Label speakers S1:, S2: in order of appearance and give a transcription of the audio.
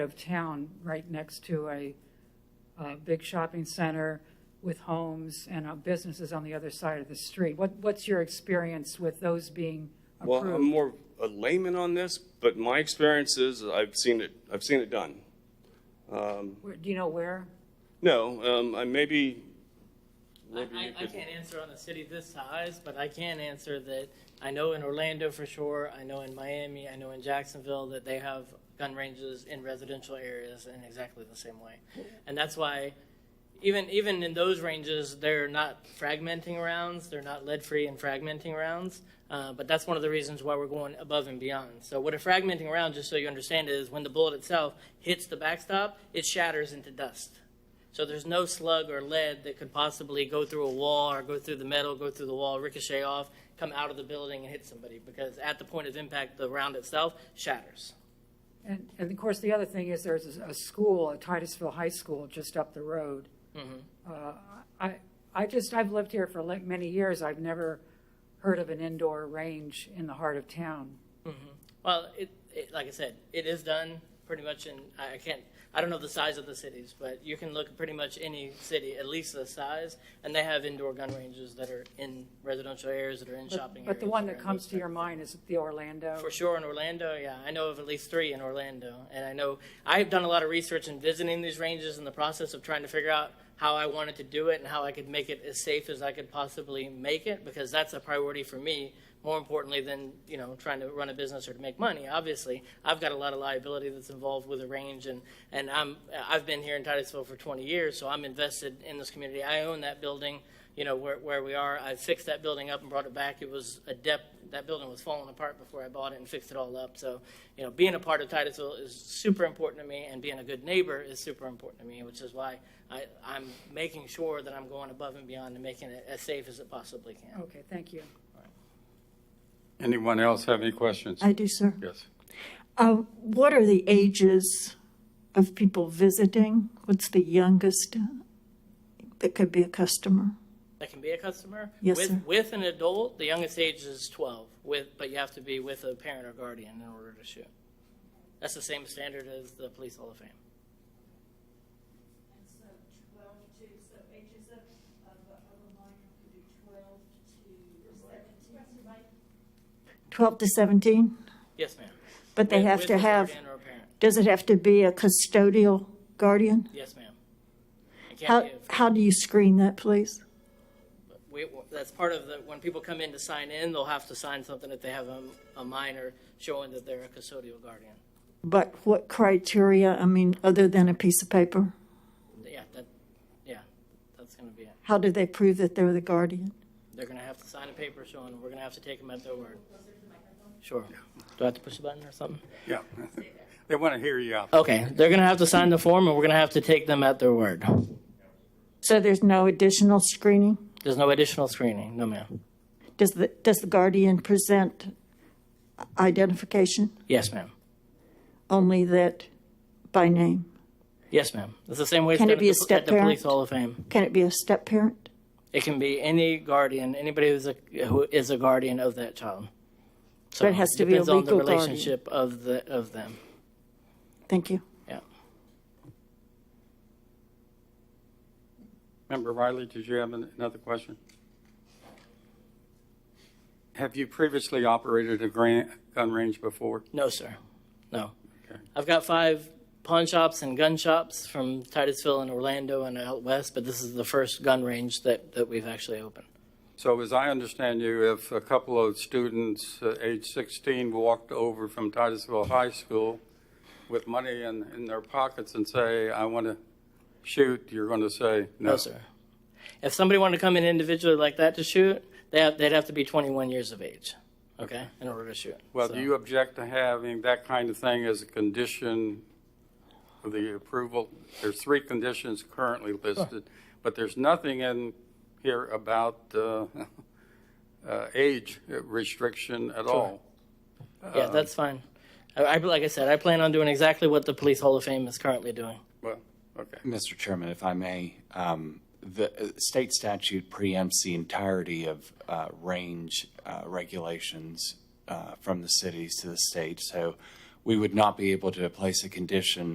S1: of town, right next to a, uh big shopping center with homes and uh, businesses on the other side of the street. What, what's your experience with those being
S2: Well, um, I'm
S1: approved?
S2: more a layman on this, but my experience is I've seen it, I've seen it done.
S1: Where- Do you know where?
S2: No, um, I maybe,
S3: I,
S2: maybe you
S3: I, I
S2: could,
S3: can't answer on a city this size, but I can answer that I know in Orlando for sure, I know in Miami, I know in Jacksonville that they have gun ranges in residential areas in exactly the same way. And that's why even even in those ranges, they're not fragmenting rounds. They're not lead free and fragmenting rounds. Uh, but that's one of the reasons why we're going above and beyond. So what a fragmenting round, just so you understand, is when the bullet itself hits the backstop, it shatters into dust. So there's no slug or lead that could possibly go through a wall or go through the metal, go through the wall, ricochet off, come out of the building and hit somebody because at the point of impact, the round itself shatters.
S1: And, and of course, the other thing is there's a, a school, a Titusville High School, just up the road.
S3: Mm-hmm.
S1: Uh, I, I just, I've lived here for like many years. I've never heard of an indoor range in the heart of town.
S3: Well, it, it, like I said, it is done pretty much in, I I can't, I don't know the size of the cities, but you can look at pretty much any city, at least the size, and they have indoor gun ranges that are in residential areas, that are in
S1: But-
S3: shopping areas.
S1: But the one
S3: are
S1: that
S3: in
S1: comes
S3: those
S1: to your mind is the Orlando.
S3: for sure in Orlando, yeah. I know of at least three in Orlando. And I know I've done a lot of research in visiting these ranges in the process of trying to figure out how I wanted to do it and how I could make it as safe as I could possibly make it because that's a priority for me. More importantly than you know trying to run a business or to make money. Obviously, I've got a lot of liability that's involved with a range, and and I'm I've been here in Titusville for 20 years, so I'm invested in this community. I own that building you know, where, where we are. I fixed that building up and brought it back. It was a depth, that building was falling apart before I bought it and fixed it all up. So, you know, being a part of Titusville is super important to me and being a good neighbor is super important to me, which is why I, I'm making sure that I'm going above and beyond and making it as safe as it possibly can.
S1: Okay, thank you.
S4: Anyone else have any questions?
S5: I do, sir.
S4: Yes.
S5: Uh, What are the ages of people visiting? What's the youngest that could be a customer?
S3: That can be a customer.
S5: Yes,
S3: with,
S5: sir.
S3: With an adult, the youngest age is 12, with, but you have to be with a parent or guardian in order to shoot. That's the same standard as the Police Hall of Fame.
S6: And so twelve to, so ages of, of, of a minor could be twelve to seventeen, right?
S5: 12 to 17?
S3: Yes, ma'am.
S5: But they
S3: With-
S5: have
S3: with
S5: to
S3: a
S5: have,
S3: guardian or a parent.
S5: does it have to be a custodial guardian?
S3: Yes, ma'am. I
S5: How,
S3: can't give.
S5: how do you screen that, please?
S3: We, that's part of the, when people come in to sign in, they'll have to sign something if they have a, a minor showing that they're a custodial guardian.
S5: But what criteria, I mean, other than a piece of paper?
S3: Yeah, that, yeah, that's gonna be it.
S5: How do they prove that they're the guardian?
S3: They're gonna have to sign a paper showing, we're gonna have to take them at their word. Sure. Do I have to push a button or something?
S4: Yeah. They want to hear you out.
S3: Okay, they're gonna have to sign the form and we're gonna have to take them at their word.
S5: So there's no additional screening?
S3: There's no additional screening, no ma'am.
S5: Does the, does the guardian present identification?
S3: Yes, ma'am.
S5: Only that by name?
S3: Yes, ma'am. It's the same way. it's
S5: Can it
S3: done at
S5: be a
S3: the- at
S5: step
S3: the Police
S5: parent?
S3: Hall of Fame.
S5: Can it be a step parent?
S3: It can be any guardian, anybody who's a who is a guardian of that child. So
S5: But it has to be a
S3: depends on the
S5: legal guardian.
S3: relationship of the of them.
S5: Thank you.
S3: Yeah.
S4: Member Riley, did you have an- another question? Have you previously operated a gran- gun range before?
S3: No, sir. No.
S4: Okay.
S3: I've got five pawn shops and gun shops from Titusville and Orlando and out west, but this is the first gun range that, that we've actually opened.
S4: So as I understand you, if a couple of students, uh, age 16, walked over from Titusville High School with money in, in their pockets and say, I want to shoot, you're going to say, no.
S3: No, sir. If somebody wanted to come in individually like that to shoot, they have, they'd have to be 21 years of age, okay, in order to shoot.
S4: Well,
S3: So-
S4: do you object to having that kind of thing as a condition of the approval? There's three conditions currently listed, but there's nothing in here about uh, uh, age restriction at all.
S3: Yeah, that's fine. I, I, like I said, I plan on doing exactly what the Police Hall of Fame is currently doing.
S4: Well, okay.
S7: Mr. Chairman, if I may, um, the uh, state statute preempts the entirety of uh, range uh, regulations uh, from the cities to the state, so we would not be able to place a condition